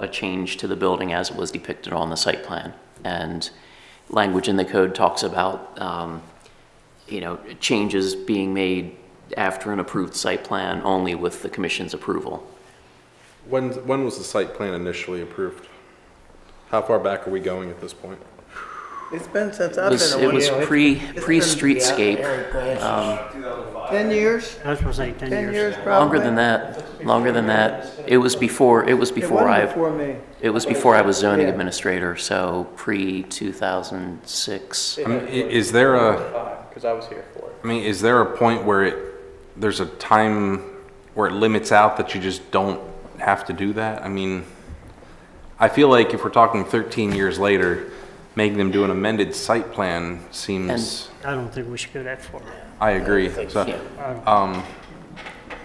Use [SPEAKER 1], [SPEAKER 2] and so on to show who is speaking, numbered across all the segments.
[SPEAKER 1] a change to the building as it was depicted on the site plan. And language in the code talks about, um, you know, changes being made after an approved site plan only with the commission's approval.
[SPEAKER 2] When, when was the site plan initially approved? How far back are we going at this point?
[SPEAKER 3] It's been since
[SPEAKER 1] It
[SPEAKER 3] I've
[SPEAKER 1] was,
[SPEAKER 3] been a
[SPEAKER 1] it was
[SPEAKER 3] window.
[SPEAKER 1] pre,
[SPEAKER 3] It's
[SPEAKER 1] pre-streetscape, um,
[SPEAKER 3] been- Ten years,
[SPEAKER 4] I was supposed to say 10
[SPEAKER 3] ten
[SPEAKER 4] years.
[SPEAKER 3] years probably.
[SPEAKER 1] longer than that, longer than that. It was before, it was
[SPEAKER 3] It
[SPEAKER 1] before
[SPEAKER 3] wasn't
[SPEAKER 1] I,
[SPEAKER 3] before me.
[SPEAKER 1] it was before I was zoning
[SPEAKER 3] Yeah.
[SPEAKER 1] administrator, so pre-2006.
[SPEAKER 2] I mean, i- is there a,
[SPEAKER 5] Because I was here for it.
[SPEAKER 2] I mean, is there a point where it, there's a time where it limits out that you just don't have to do that? I mean, I feel like if we're talking 13 years later, making them do an amended site plan seems,
[SPEAKER 4] I don't think we should go that far.
[SPEAKER 2] I agree. So,
[SPEAKER 1] Yeah.
[SPEAKER 2] um,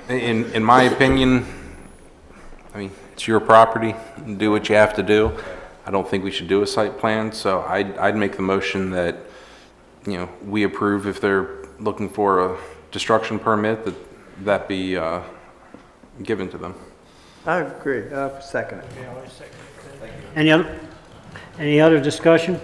[SPEAKER 2] in, in my opinion, I mean, it's your property, do what you have to do. I don't think we should do a site plan, so I'd, I'd make the motion that, you know, we approve if they're looking for a destruction permit, that, that be, uh, given to them.
[SPEAKER 3] I agree, I second it.
[SPEAKER 4] Any other, any other discussion?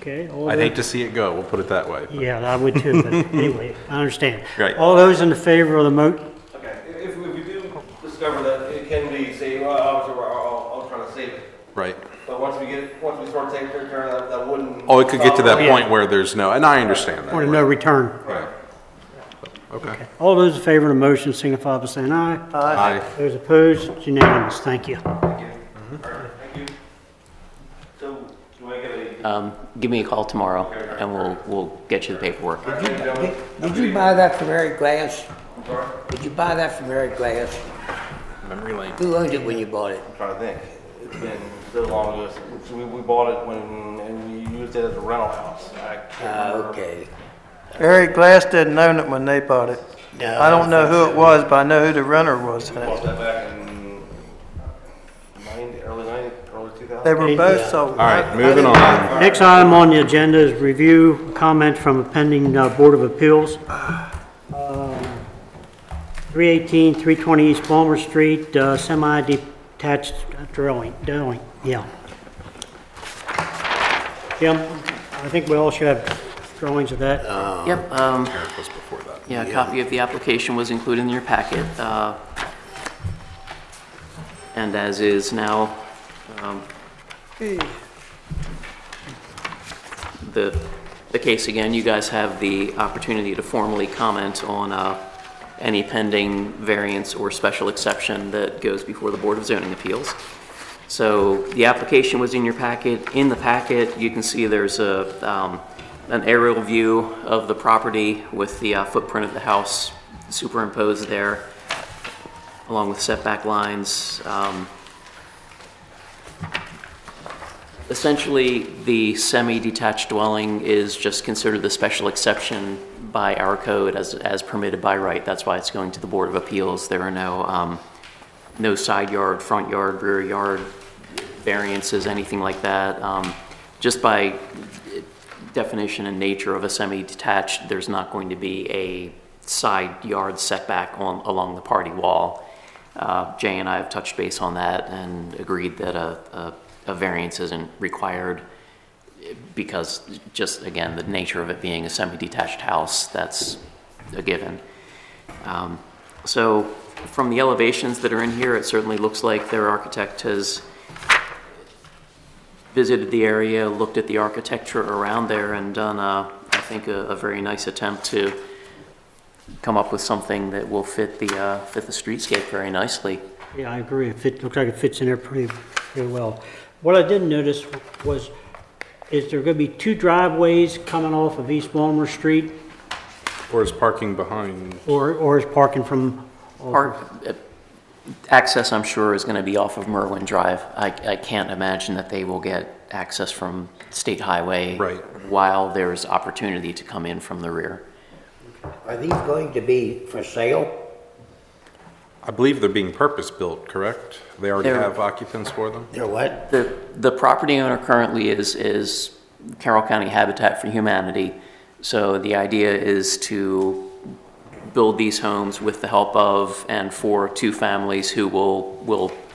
[SPEAKER 4] Okay. all
[SPEAKER 2] I'd
[SPEAKER 4] those-
[SPEAKER 2] hate to see it go, we'll put it that way.
[SPEAKER 4] Yeah, I would too, but anyway, I understand.
[SPEAKER 2] Right.
[SPEAKER 4] All those in the favor of the mo,
[SPEAKER 5] Okay, if, if we do discover that it can be saved, well, obviously, we're all, all trying to save it.
[SPEAKER 2] Right.
[SPEAKER 5] But once we get, once we sort of take care of that, that wouldn't.
[SPEAKER 2] Oh, it could get to that
[SPEAKER 4] Yeah.
[SPEAKER 2] point where there's no, and I understand that.
[SPEAKER 4] or to no return.
[SPEAKER 2] Right. Okay.
[SPEAKER 4] All those in favor of the motion signify by saying aye.
[SPEAKER 2] Aye.
[SPEAKER 4] Those opposed, it's unanimous. Thank you.
[SPEAKER 5] Thank you. All right, thank you. So, do you want to give a?
[SPEAKER 1] Um, give me a call tomorrow and we'll, we'll get you the paperwork.
[SPEAKER 6] Did did you buy that from Eric Glass?
[SPEAKER 5] I'm sorry?
[SPEAKER 6] Did you buy that from Eric Glass?
[SPEAKER 2] Memory lane.
[SPEAKER 6] Who owned it when you bought it?
[SPEAKER 5] I'm trying to think. It's been so long ago. since- We, we bought it when, and we used it as a rental house. I can't
[SPEAKER 6] Ah,
[SPEAKER 5] remember.
[SPEAKER 6] okay.
[SPEAKER 3] Eric Glass didn't own it when they bought it.
[SPEAKER 6] No,
[SPEAKER 3] I don't know who it was, but I know who the runner was. in
[SPEAKER 5] We bought
[SPEAKER 3] it.
[SPEAKER 5] that back in ninety, early ninety, early two
[SPEAKER 3] They
[SPEAKER 5] thousand.
[SPEAKER 3] were both sold.
[SPEAKER 2] All right, moving on.
[SPEAKER 4] Next item on the agenda is review comment from a pending uh, Board of Appeals. Um, 318, 320 East Palmer Street, uh, semi-detached drilling, drilling, yeah. Jim, I think we all should have drawings of that.
[SPEAKER 1] Yep, um, yeah, a copy of the application was included in your packet. uh, And as is now, um, the, the case again, you guys have the opportunity to formally comment on uh, any pending variance or special exception that goes before the Board of Zoning Appeals. So the application was in your packet. In the packet, you can see there's a, um, an aerial view of the property with the uh, footprint of the house superimposed there, along with setback lines. Um, Essentially, the semi-detached dwelling is just considered the special exception by our code as, as permitted by right. That's why it's going to the Board of Appeals. There are no, um, no side yard, front yard, rear yard variances, anything like that. Um, Just by definition and nature of a semi-detached, there's not going to be a side yard setback on, along the party wall. Uh, Jay and I have touched base on that and agreed that a, a, a variance isn't required because just, again, the nature of it being a semi-detached house, that's a given. Um, So from the elevations that are in here, it certainly looks like their architect has visited the area, looked at the architecture around there, and done, uh, I think, a a very nice attempt to come up with something that will fit the, uh, fit the streetscape very nicely.
[SPEAKER 4] Yeah, I agree. It fit, looks like it fits in there pretty, pretty well. What I didn't notice was, is there going to be two driveways coming off of East Palmer Street?
[SPEAKER 2] Or is parking behind?
[SPEAKER 4] Or, or is parking from?
[SPEAKER 1] Park, uh, access, I'm sure, is going to be off of Merwin Drive. I, I can't imagine that they will get access from State Highway.
[SPEAKER 2] Right.
[SPEAKER 1] While there's opportunity to come in from the rear.
[SPEAKER 6] Are these going to be for sale?
[SPEAKER 2] I believe they're being purpose-built, correct? They already
[SPEAKER 1] They're-
[SPEAKER 2] have occupants for them?
[SPEAKER 6] They're what?
[SPEAKER 1] The, the property owner currently is, is Carroll County Habitat for Humanity. So the idea is to build these homes with the help of and for two families who will, will